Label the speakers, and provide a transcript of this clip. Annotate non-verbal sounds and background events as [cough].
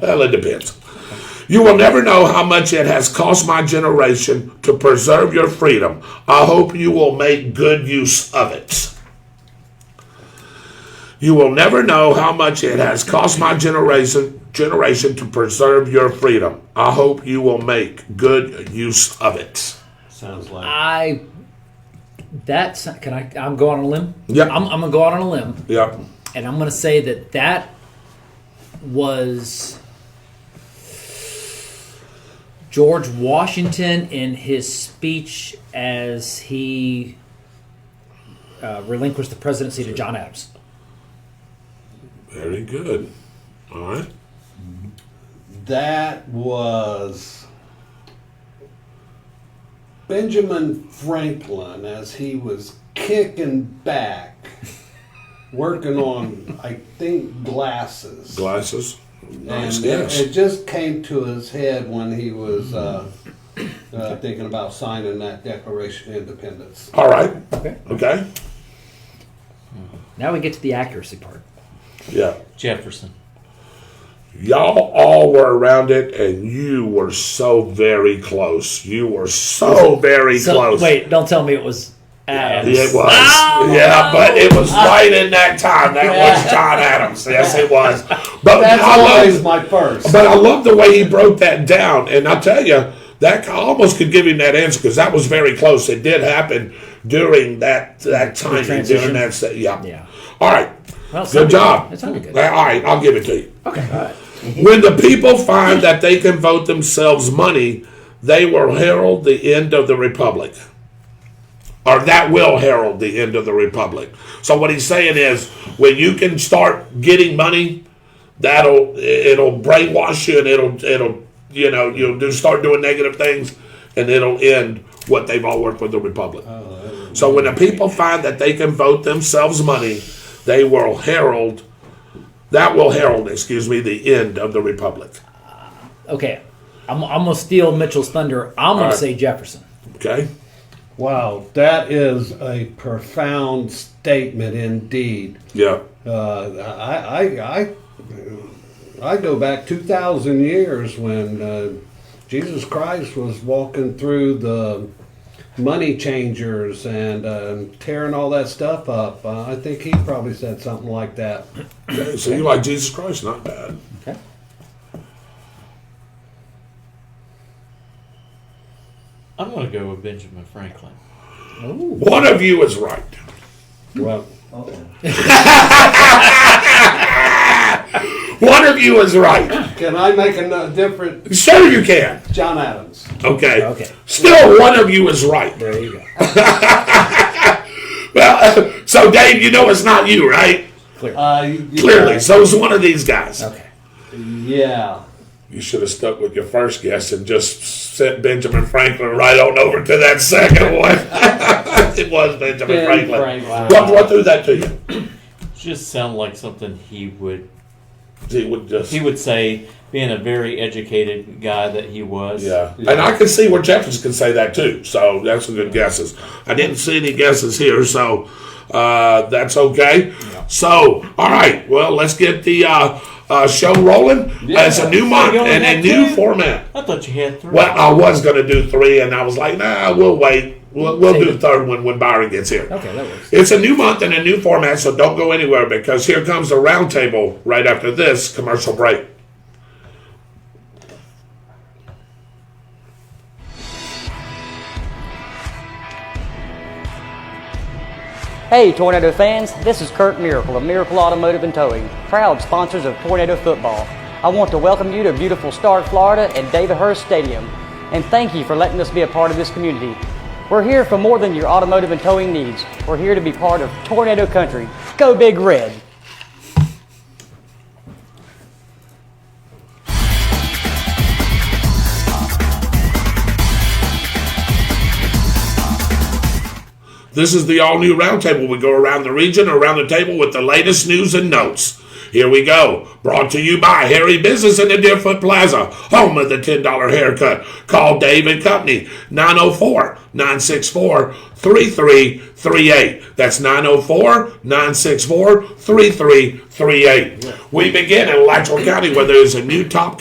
Speaker 1: Well, it depends. You will never know how much it has cost my generation to preserve your freedom. I hope you will make good use of it. You will never know how much it has cost my generation generation to preserve your freedom. I hope you will make good use of it.
Speaker 2: Sounds like
Speaker 3: I. That's can I? I'm going on a limb.
Speaker 1: Yeah.
Speaker 3: I'm, I'm gonna go out on a limb,
Speaker 1: Yeah.
Speaker 3: and I'm gonna say that that was George Washington in his speech as he uh, relinquished the presidency to John Adams.
Speaker 1: Very good. All right.
Speaker 2: that was Benjamin Franklin as he was kicking back, working on, I think, glasses.
Speaker 1: Glasses. Nice.
Speaker 2: And it,
Speaker 1: yes.
Speaker 2: it just came to his head when he was uh, uh, thinking about signing that Declaration of Independence.
Speaker 1: All right.
Speaker 3: Okay.
Speaker 1: Okay.
Speaker 3: Now we get to the accuracy part.
Speaker 1: Yeah.
Speaker 4: Jefferson.
Speaker 1: Y'all all were around it, and you were so very close. You were so very
Speaker 3: So-
Speaker 1: close.
Speaker 3: Wait, don't tell me it was Adams.
Speaker 1: It was. yeah, but it was right in that time. That was John Adams. Yes, it was. But
Speaker 2: That's
Speaker 1: I
Speaker 2: always
Speaker 1: love,
Speaker 2: my first.
Speaker 1: but I love the way he broke that down. And I tell you, that I almost could give him that answer because that was very close. It did happen during that that time during
Speaker 3: transition.
Speaker 1: that. se- Yeah.
Speaker 3: Yeah.
Speaker 1: All right.
Speaker 3: Well, it
Speaker 1: Good
Speaker 3: sounded
Speaker 1: job.
Speaker 3: It sounded good.
Speaker 1: All right, I'll give it to you. Okay. When the people find that they can vote themselves money, they will herald the end of the republic. Or that will herald the end of the republic. So what he's saying is, when you can start getting money, that'll it'll brainwash you and it'll it'll you know you'll do start doing negative things, and it'll end what they've all worked with the republic. So when the people find that they can vote themselves money, they will herald, that will herald, excuse me, the end of the republic.
Speaker 3: Okay, I'm, I'm gonna steal Mitchell's thunder. I'm gonna
Speaker 1: right.
Speaker 3: say Jefferson.
Speaker 1: Okay?
Speaker 2: Wow, that is a profound statement indeed.
Speaker 1: Yeah.
Speaker 2: Uh, I, I, I, I go back 2,000 years when uh, Jesus Christ was walking through the money changers and uh, tearing all that stuff up. Uh, I think he probably said something like that.
Speaker 1: Okay, So you like Jesus Christ? Not bad.
Speaker 3: Okay.
Speaker 4: I'm going to go with Benjamin Franklin.
Speaker 1: One of you is right.
Speaker 2: Well,
Speaker 1: One of you is right.
Speaker 2: can I make a different
Speaker 1: Sure, you can.
Speaker 2: John Adams?
Speaker 1: Okay.
Speaker 3: Okay.
Speaker 1: Still, one of you is right.
Speaker 3: There you go.
Speaker 1: Well, [laughs] so Dave, you know it's not you, right?
Speaker 2: Uh, yeah,
Speaker 1: Clearly. So it's one of these guys.
Speaker 3: Okay.
Speaker 2: Yeah.
Speaker 1: You should have stuck with your first guess and just sent Benjamin Franklin right on over to that second one. [laughs] it was Benjamin
Speaker 2: Ben
Speaker 1: Franklin.
Speaker 2: Franklin.
Speaker 1: What, what threw that to you?
Speaker 4: Just sound like something he would
Speaker 1: He would just.
Speaker 4: he would say, being a very educated guy that he was.
Speaker 1: yeah. and I can see where Jefferson can say that too. So that's some good guesses. I didn't see any guesses here, so uh, that's okay. So, all right, well, let's get the uh, uh, show rolling.
Speaker 2: Yeah.
Speaker 1: it's a new month
Speaker 4: You're going
Speaker 1: and a
Speaker 4: next
Speaker 1: new
Speaker 4: week?
Speaker 1: format.
Speaker 4: I thought you had three.
Speaker 1: Well, I was gonna do three, and I was like, nah, we'll wait. We'll, we'll do the third one when Byron gets here.
Speaker 3: Okay, that works.
Speaker 1: It's a new month and a new format, so don't go anywhere because here comes the roundtable right after this commercial break.
Speaker 5: Hey, Tornado fans, this is Kurt Miracle of Miracle Automotive and Towing, proud sponsors of Tornado Football. I want to welcome you to beautiful Stark, Florida at David Hurst Stadium, and thank you for letting us be a part of this community. We're here for more than your automotive and towing needs. We're here to be part of Tornado Country. Go Big Red!
Speaker 1: This is the all new roundtable. We go around the region, around the table with the latest news and notes. Here we go. Brought to you by Harry Business in the Deerfoot Plaza, home of the $10 haircut. Call Dave and Company, 904 964 3338. That's 904 964 3338. We begin in Alachua County where there is a new top